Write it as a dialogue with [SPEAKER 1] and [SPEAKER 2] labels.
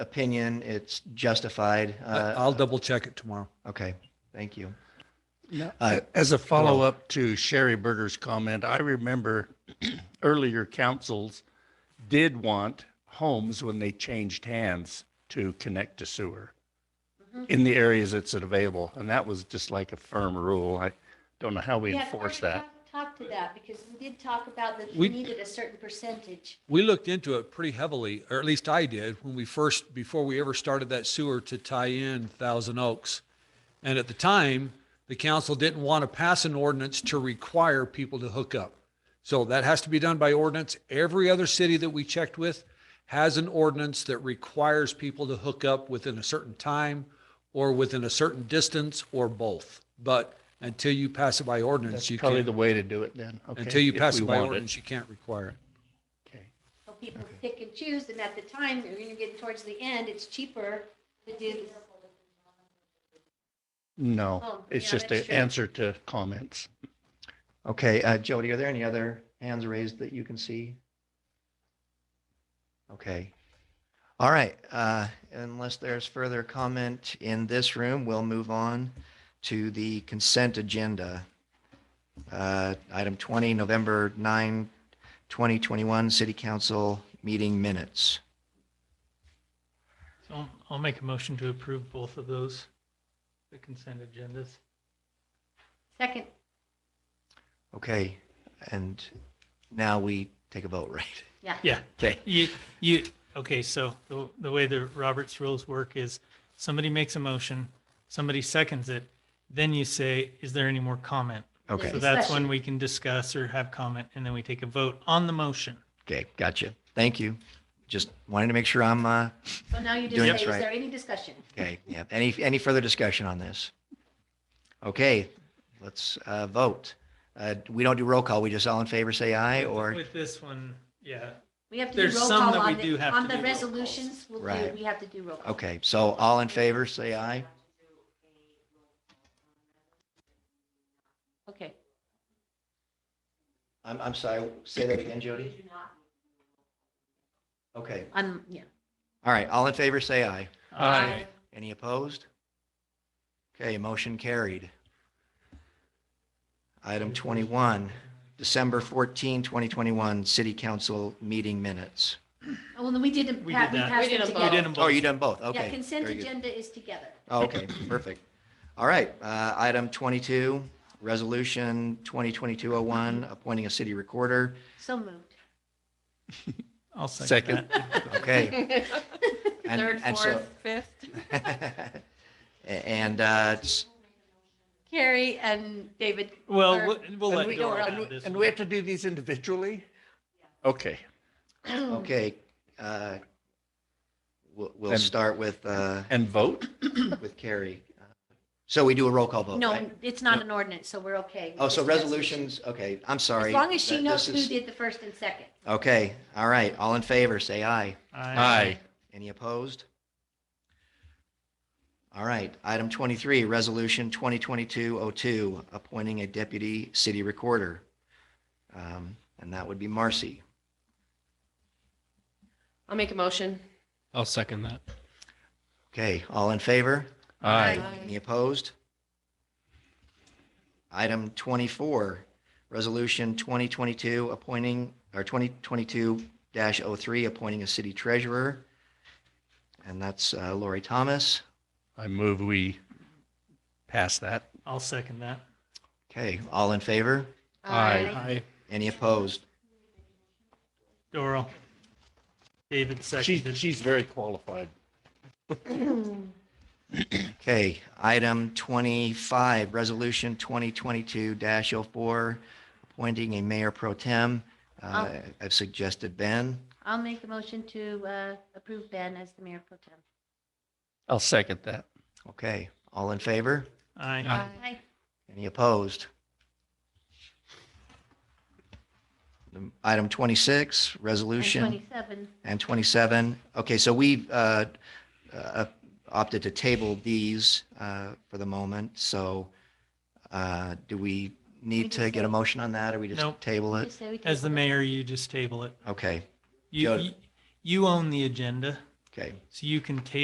[SPEAKER 1] opinion. It's justified.
[SPEAKER 2] I-
[SPEAKER 1] Uh,
[SPEAKER 2] I'll double check it tomorrow.
[SPEAKER 1] okay, thank you.
[SPEAKER 3] Now,
[SPEAKER 1] Uh,
[SPEAKER 3] a- As a follow-up to Sherry Berger's comment, I remember earlier councils did want homes when they changed hands to connect to sewer
[SPEAKER 4] Mm-hmm.
[SPEAKER 3] in the areas it's available, and that was just like a firm rule. I don't know how we
[SPEAKER 4] Yeah,
[SPEAKER 3] enforce
[SPEAKER 4] Carter,
[SPEAKER 3] that.
[SPEAKER 4] talk- Talk to that, because we did talk about that
[SPEAKER 2] We-
[SPEAKER 4] we needed a certain percentage.
[SPEAKER 2] We looked into it pretty heavily, or at least I did, when we first, before we ever started that sewer to tie in Thousand Oaks. And at the time, the council didn't want to pass an ordinance to require people to hook up. So that has to be done by ordinance. Every other city that we checked with has an ordinance that requires people to hook up within a certain time or within a certain distance or both. But until you pass it by ordinance,
[SPEAKER 3] That's
[SPEAKER 2] you
[SPEAKER 3] probably the
[SPEAKER 2] can't,
[SPEAKER 3] way to do it then. okay,
[SPEAKER 2] until you
[SPEAKER 3] if
[SPEAKER 2] pass
[SPEAKER 3] we
[SPEAKER 2] it by
[SPEAKER 3] want
[SPEAKER 2] ordinance, you can't require it.
[SPEAKER 3] Okay.
[SPEAKER 4] So people pick and choose, and at the time, you're gonna get towards the end, it's cheaper to do this.
[SPEAKER 3] No,
[SPEAKER 4] Oh,
[SPEAKER 3] it's
[SPEAKER 4] yeah,
[SPEAKER 3] just
[SPEAKER 4] that's
[SPEAKER 3] an
[SPEAKER 4] true.
[SPEAKER 3] answer to comments.
[SPEAKER 1] Okay, uh, Jody, are there any other hands raised that you can see? Okay. All right, uh, unless there's further comment in this room, we'll move on to the consent agenda. Uh, Item 20, November 9, 2021, City Council Meeting Minutes.
[SPEAKER 5] So I'll- I'll make a motion to approve both of those, the consent agendas.
[SPEAKER 4] Second,
[SPEAKER 1] Okay, and now we take a vote, right?
[SPEAKER 4] yeah.
[SPEAKER 5] Yeah.
[SPEAKER 1] Okay.
[SPEAKER 5] You, you, okay, so the, the way the Roberts rules work is somebody makes a motion, somebody seconds it, then you say, is there any more comment?
[SPEAKER 1] Okay,
[SPEAKER 5] So that's
[SPEAKER 4] Discussion.
[SPEAKER 5] when we can discuss or have comment, and then we take a vote on the motion.
[SPEAKER 1] okay, gotcha. Thank you. Just wanted to make sure I'm uh,
[SPEAKER 4] So now you just
[SPEAKER 1] Doing
[SPEAKER 4] say,
[SPEAKER 1] it
[SPEAKER 4] is
[SPEAKER 1] right.
[SPEAKER 4] there any discussion?
[SPEAKER 1] Okay, yeah. Any, any further discussion on this? Okay, let's uh, vote. Uh, We don't do roll call. We just all in favor say aye or,
[SPEAKER 5] With this one, yeah,
[SPEAKER 4] We have to
[SPEAKER 5] There's
[SPEAKER 4] do roll
[SPEAKER 5] some
[SPEAKER 4] call
[SPEAKER 5] that we
[SPEAKER 4] on
[SPEAKER 5] do
[SPEAKER 4] the,
[SPEAKER 5] have
[SPEAKER 4] on
[SPEAKER 5] to
[SPEAKER 4] the
[SPEAKER 5] do roll calls.
[SPEAKER 4] resolutions, we'll do,
[SPEAKER 1] Right.
[SPEAKER 4] we have to do roll call.
[SPEAKER 1] okay, so all in favor say aye.
[SPEAKER 4] Okay.
[SPEAKER 1] I'm, I'm sorry, say that again, Jody. Okay,
[SPEAKER 4] I'm, yeah.
[SPEAKER 1] all right, all in favor say aye.
[SPEAKER 5] Aye.
[SPEAKER 1] Any opposed? Okay, motion carried. Item 21, December 14, 2021, City Council Meeting Minutes.
[SPEAKER 4] Oh, Well, then we didn't,
[SPEAKER 5] We
[SPEAKER 4] pa-
[SPEAKER 5] did
[SPEAKER 4] we
[SPEAKER 5] that.
[SPEAKER 4] passed
[SPEAKER 6] We
[SPEAKER 4] it
[SPEAKER 6] did them
[SPEAKER 5] you
[SPEAKER 4] together.
[SPEAKER 5] did them
[SPEAKER 1] Oh, you
[SPEAKER 5] both.
[SPEAKER 1] done both? Okay.
[SPEAKER 4] Yeah, consent
[SPEAKER 1] very good.
[SPEAKER 4] agenda is together.
[SPEAKER 1] Oh, Okay, perfect. All right, uh, item 22, resolution 2022-01, appointing a city recorder.
[SPEAKER 4] So moved.
[SPEAKER 5] I'll
[SPEAKER 3] Second.
[SPEAKER 5] second that.
[SPEAKER 1] Okay. and-
[SPEAKER 6] Third,
[SPEAKER 1] and so-
[SPEAKER 6] fourth, fifth.
[SPEAKER 1] A- And, uh, s-
[SPEAKER 6] Carrie and David.
[SPEAKER 5] Well,
[SPEAKER 6] Or-
[SPEAKER 5] we'll- we'll
[SPEAKER 3] And
[SPEAKER 5] let
[SPEAKER 3] we-
[SPEAKER 5] Dora
[SPEAKER 6] and
[SPEAKER 5] have
[SPEAKER 6] we-
[SPEAKER 5] this
[SPEAKER 3] And
[SPEAKER 5] one.
[SPEAKER 3] we have to do these individually? Okay.
[SPEAKER 1] okay, uh, we'll, we'll
[SPEAKER 3] And-
[SPEAKER 1] start with, uh,
[SPEAKER 3] And vote?
[SPEAKER 1] with Carrie. So we do a roll call vote,
[SPEAKER 4] No,
[SPEAKER 1] right?
[SPEAKER 4] it's not an ordinance, so we're okay.
[SPEAKER 1] Oh, so
[SPEAKER 4] It's a resolution.
[SPEAKER 1] resolutions, okay, I'm sorry.
[SPEAKER 4] As long as she
[SPEAKER 1] That-
[SPEAKER 4] knows who
[SPEAKER 1] this is-
[SPEAKER 4] did the first and second.
[SPEAKER 1] Okay, all right, all in favor, say aye.
[SPEAKER 3] Aye.
[SPEAKER 1] Any opposed? All right, item 23, Resolution 2022-02, appointing a deputy city recorder. Um, And that would be Marcy.
[SPEAKER 6] I'll make a motion.
[SPEAKER 7] I'll second that.
[SPEAKER 1] Okay, all in favor?
[SPEAKER 3] Aye.
[SPEAKER 6] Aye.
[SPEAKER 1] Any opposed? Item 24, Resolution 2022 appointing, or 2022-03, appointing a city treasurer. And that's uh, Lori Thomas.
[SPEAKER 3] I move we pass that.
[SPEAKER 5] I'll second that.
[SPEAKER 1] Okay, all in favor?
[SPEAKER 7] Aye.
[SPEAKER 1] Any opposed?
[SPEAKER 5] Doral. David
[SPEAKER 3] She,
[SPEAKER 5] seconded.
[SPEAKER 3] she's very qualified.
[SPEAKER 1] Okay, item 25, Resolution 2022-04, appointing a mayor pro tem. Uh, I've suggested Ben.
[SPEAKER 4] I'll make a motion to uh, approve Ben as the mayor pro tem.
[SPEAKER 3] I'll second that.
[SPEAKER 1] Okay, all in favor?
[SPEAKER 3] uh,
[SPEAKER 5] Aye.
[SPEAKER 4] Aye.
[SPEAKER 1] Any opposed? Um, Item 26,
[SPEAKER 4] And
[SPEAKER 1] Resolution,
[SPEAKER 4] 27.
[SPEAKER 1] and 27. Okay, so we uh, uh, opted to table these uh, for the moment, so uh, do we
[SPEAKER 4] We
[SPEAKER 1] need to
[SPEAKER 4] just
[SPEAKER 1] get a
[SPEAKER 4] table-
[SPEAKER 1] motion on that, or we just
[SPEAKER 5] Nope.
[SPEAKER 1] table it?
[SPEAKER 4] Just say we
[SPEAKER 5] As
[SPEAKER 4] table
[SPEAKER 5] the
[SPEAKER 4] it.
[SPEAKER 5] mayor, you just table it.
[SPEAKER 1] Okay,
[SPEAKER 5] You,
[SPEAKER 1] Got it.
[SPEAKER 5] you- you own the agenda.
[SPEAKER 1] Okay.
[SPEAKER 5] So you can table